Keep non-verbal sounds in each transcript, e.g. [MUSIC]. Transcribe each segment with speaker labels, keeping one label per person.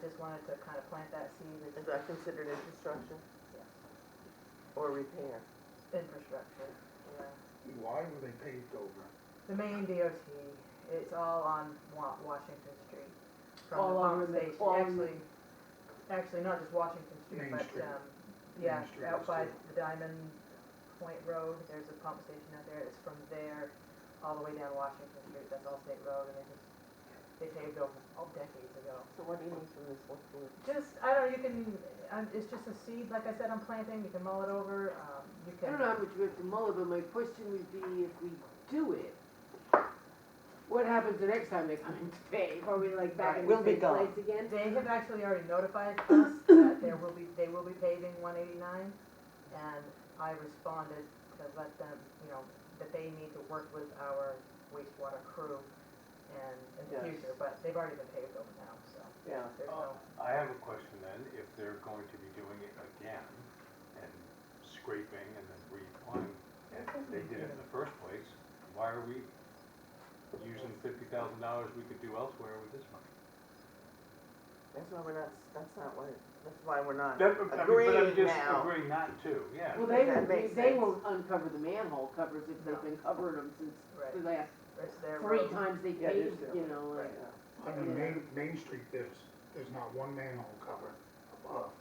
Speaker 1: just wanted to kind of plant that seed
Speaker 2: Is
Speaker 1: as
Speaker 2: that considered infrastructure?
Speaker 1: Yes.
Speaker 2: Or repair?
Speaker 1: infrastructure, you know.
Speaker 3: Why were they paved over?
Speaker 1: The main DOT, it's all on Wa- Washington Street. From the
Speaker 4: All on
Speaker 1: pump
Speaker 4: the-
Speaker 1: station,
Speaker 4: all on
Speaker 1: actually, actually not just Washington Street,
Speaker 3: Main
Speaker 1: but,
Speaker 3: Street.
Speaker 1: um,
Speaker 3: Main
Speaker 1: yeah,
Speaker 3: Street
Speaker 1: out
Speaker 3: is
Speaker 1: by
Speaker 3: too.
Speaker 1: the Diamond Point Road, there's a pump station out there. It's from there all the way down Washington Street. That's all state road and they just, they paved over all decades ago.
Speaker 2: So what do you need from this one?
Speaker 1: Just, I don't know, you can, um, it's just a seed, like I said, I'm planting, you can mull it over, um, you
Speaker 4: I
Speaker 1: can.
Speaker 4: don't know how much we have to mull it, but my question would be if we do it, what happens the next time they come in to pay? Are we like back in the
Speaker 2: We'll be
Speaker 4: same
Speaker 2: gone.
Speaker 4: place again?
Speaker 1: They have actually already notified us [COUGHS] that there will be, they will be paving one eighty-nine, and I responded to let them, you know, that they need to work with our wastewater crew and in the
Speaker 2: Yes.
Speaker 1: future, but they've already been paved over now, so
Speaker 2: Yeah.
Speaker 1: there's no,
Speaker 4: Oh.
Speaker 5: I have a question then, if they're going to be doing it again and scraping and then reapplying, and they did it in the first place, why are we using fifty thousand dollars we could do elsewhere with this money?
Speaker 2: That's why we're not, that's not what, that's why we're not
Speaker 5: That- I mean, but I'm
Speaker 2: agreeing
Speaker 5: just
Speaker 2: now.
Speaker 5: Agreeing not to, yeah.
Speaker 4: Well, they,
Speaker 2: That
Speaker 4: won't-
Speaker 2: makes
Speaker 4: they
Speaker 2: sense.
Speaker 4: won't uncover the manhole covers if they've been covering them since
Speaker 1: Right.
Speaker 4: the last
Speaker 1: it's their
Speaker 4: three
Speaker 1: road.
Speaker 4: times they
Speaker 2: Yeah, it is
Speaker 4: paved,
Speaker 2: their
Speaker 4: you know, like.
Speaker 2: Right.
Speaker 3: On the main, main street, there's, there's not one manhole cover above.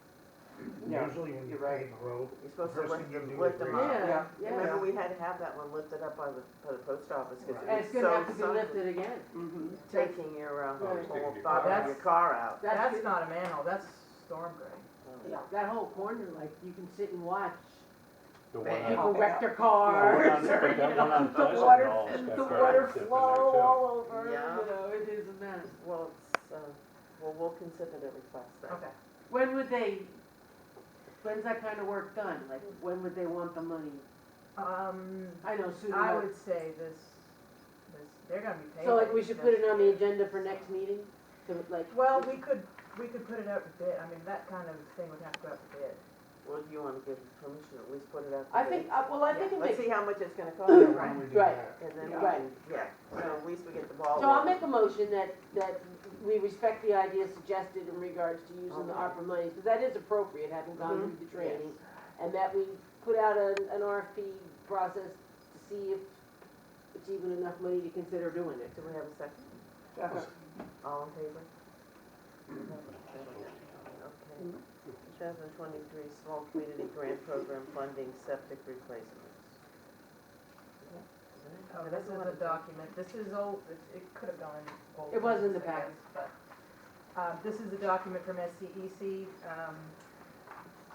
Speaker 2: No,
Speaker 3: Usually when you
Speaker 2: you're right.
Speaker 3: pave a road,
Speaker 2: You're supposed to
Speaker 3: First
Speaker 2: lift
Speaker 3: thing you
Speaker 2: them,
Speaker 3: do
Speaker 2: lift
Speaker 3: is
Speaker 2: them
Speaker 3: raise
Speaker 2: up.
Speaker 4: them. Yeah, yeah.
Speaker 2: Remember, we had to have that one lifted up by the, by the post office, cause
Speaker 3: Right.
Speaker 4: And
Speaker 2: it
Speaker 4: it's gonna have
Speaker 2: was
Speaker 4: to be
Speaker 2: so, so,
Speaker 4: lifted again.
Speaker 2: taking your, uh,
Speaker 4: Right.
Speaker 2: whole bottom of your
Speaker 1: That's-
Speaker 2: car out.
Speaker 1: That's
Speaker 4: good.
Speaker 1: not a manhole, that's storm drain.
Speaker 4: Yeah, that whole corner, like, you can sit and watch
Speaker 5: The one
Speaker 2: Yeah.
Speaker 4: [LAUGHS] people
Speaker 5: on,
Speaker 2: Oh, Yeah.
Speaker 4: wreck their
Speaker 5: the one on,
Speaker 4: cars, [LAUGHS] or,
Speaker 5: but
Speaker 4: you
Speaker 5: that one on
Speaker 4: know, the
Speaker 5: Pleasant
Speaker 4: water,
Speaker 5: Knoll's got
Speaker 4: the
Speaker 5: very
Speaker 4: water
Speaker 5: stiff in there,
Speaker 4: flow all over, you
Speaker 2: Yeah.
Speaker 4: know, it is a mess.
Speaker 2: Well, it's, uh, well, we'll consider the request then.
Speaker 1: Okay,
Speaker 4: When would they, when's that kind of work done? Like, when would they want the money?
Speaker 1: um,
Speaker 4: I know sooner.
Speaker 1: I
Speaker 4: than-
Speaker 1: would say this, this, they're gonna be paving.
Speaker 4: So like, we should put it on the
Speaker 1: this-
Speaker 4: agenda for next meeting, to like.
Speaker 1: Well, we could, we could put it out to bid, I mean, that kind of thing would have to go out to bid.
Speaker 2: Well, do you wanna give permission, to at least put it out there?
Speaker 4: I think, uh, well, I think it
Speaker 2: Let's
Speaker 4: makes,
Speaker 2: see how much it's gonna cost,
Speaker 3: why
Speaker 2: and
Speaker 3: don't we do
Speaker 4: [COUGHS] Right.
Speaker 3: that?
Speaker 2: then we
Speaker 4: Yeah.
Speaker 2: can, yeah, so at least we get the ball
Speaker 4: so I'll
Speaker 2: rolling.
Speaker 4: make a motion that, that we respect the idea suggested in regards to using the
Speaker 2: Okay.
Speaker 4: ARPA monies, because that is appropriate, having gone
Speaker 2: Mhm.
Speaker 4: through the training. And that we put out an, an RFP process to see if it's even enough money to consider doing it.
Speaker 2: Do we have a second?
Speaker 4: Second.
Speaker 2: All in favor? Okay. Two thousand twenty-three Small Community Grant Program Funding Septic Replacements.
Speaker 1: Oh, this is a document, this is old, it, it could have gone old.
Speaker 4: It was in the
Speaker 1: I guess, But, uh, this is a document from SCEC, um,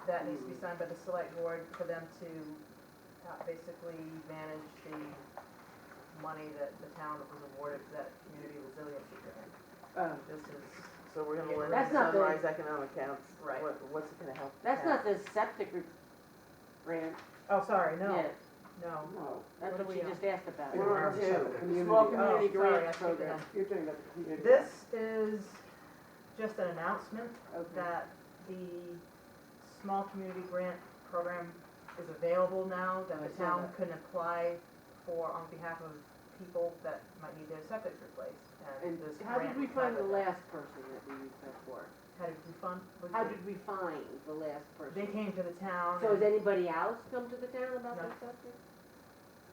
Speaker 1: that needs to be signed by the select board for them to uh, basically manage the money that the town was awarded for that community resiliency grant.
Speaker 4: Uh,
Speaker 1: This is,
Speaker 2: So we're gonna learn
Speaker 4: That's not the-
Speaker 2: Sunrise Economic Counts.
Speaker 1: Right.
Speaker 2: What, what's it gonna help?
Speaker 4: That's
Speaker 2: town?
Speaker 4: not the septic re- grant
Speaker 1: oh, sorry, no,
Speaker 4: yet.
Speaker 1: no.
Speaker 4: No, that's
Speaker 1: What are
Speaker 4: what
Speaker 1: we
Speaker 4: she
Speaker 1: on?
Speaker 4: just asked about.
Speaker 2: We're on
Speaker 3: Yeah,
Speaker 2: two.
Speaker 3: community.
Speaker 4: Small
Speaker 1: Oh,
Speaker 4: community
Speaker 1: sorry, I
Speaker 4: grant
Speaker 1: skipped
Speaker 4: program.
Speaker 1: that.
Speaker 4: You're talking about the community.
Speaker 1: This is just an announcement
Speaker 4: Okay.
Speaker 1: that the small community grant program is available now, that
Speaker 4: I
Speaker 1: the
Speaker 4: saw
Speaker 1: town
Speaker 4: that.
Speaker 1: can apply for on behalf of people that might need their septic replaced.
Speaker 4: And
Speaker 1: this
Speaker 4: how did
Speaker 1: grant
Speaker 4: we
Speaker 1: will
Speaker 4: find the
Speaker 1: have it.
Speaker 4: last person that we used that for?
Speaker 1: How did we fund? was
Speaker 4: How
Speaker 1: it-
Speaker 4: did we find the last person?
Speaker 1: They came to the town.
Speaker 4: So has
Speaker 1: and-
Speaker 4: anybody else come to the town about
Speaker 1: No.
Speaker 4: that subject?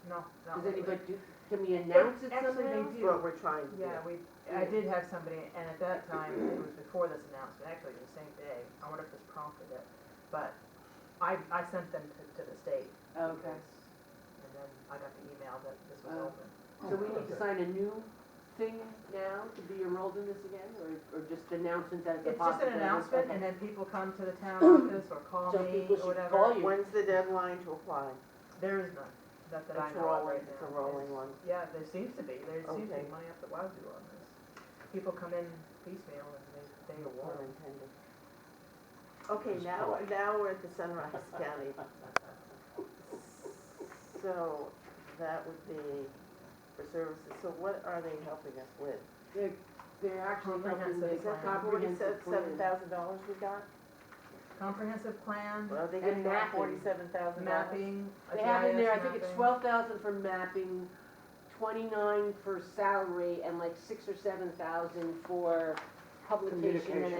Speaker 1: No, not
Speaker 4: Does
Speaker 1: really.
Speaker 4: anybody, do? can we announce it
Speaker 1: Actually, they
Speaker 4: somehow?
Speaker 1: do.
Speaker 2: What we're trying to do.
Speaker 1: Yeah, we, I did have somebody, and at that time, it was before this announcement, actually the same day, I wonder if this prompted it, but I, I sent them to, to the state.
Speaker 4: Okay,
Speaker 1: because- And then I got the email that this was
Speaker 4: Oh.
Speaker 1: open.
Speaker 4: so we need to sign a new thing now to be enrolled in this again, or, or just announcement that it's a
Speaker 1: It's just an
Speaker 4: possibility?
Speaker 1: announcement,
Speaker 4: Okay.
Speaker 1: and then people come to the town office or call
Speaker 4: So
Speaker 1: me
Speaker 4: people
Speaker 1: or
Speaker 4: should
Speaker 1: whatever.
Speaker 4: call you.
Speaker 2: When's the deadline to apply?
Speaker 1: There is none, not that I
Speaker 2: It's
Speaker 1: know of
Speaker 2: rolling,
Speaker 1: right now.
Speaker 2: it's a rolling one.
Speaker 1: Yeah, there seems to be, there seems to be
Speaker 2: Okay.
Speaker 1: money up the wazoo on this. People come in piecemeal and they, they
Speaker 2: Pun
Speaker 1: award.
Speaker 2: intended. Okay,
Speaker 5: Just
Speaker 2: now,
Speaker 5: polite.
Speaker 2: now we're at the Sunrise County. So that would be for services, so what are they helping us with?
Speaker 4: They're, they're actually helping
Speaker 1: Comprehensive
Speaker 4: with
Speaker 1: plan.
Speaker 4: comprehensive
Speaker 2: Forty-seven
Speaker 4: plan.
Speaker 2: thousand dollars we got?
Speaker 1: Comprehensive plan,
Speaker 2: Well, they
Speaker 4: And
Speaker 2: getting that
Speaker 4: mapping.
Speaker 2: forty-seven thousand dollars?
Speaker 1: mapping, a
Speaker 4: They have in there, I
Speaker 1: GIS
Speaker 4: think it's
Speaker 1: mapping.
Speaker 4: twelve thousand for mapping, twenty-nine for salary, and like six or seven thousand for publication and
Speaker 2: Communication.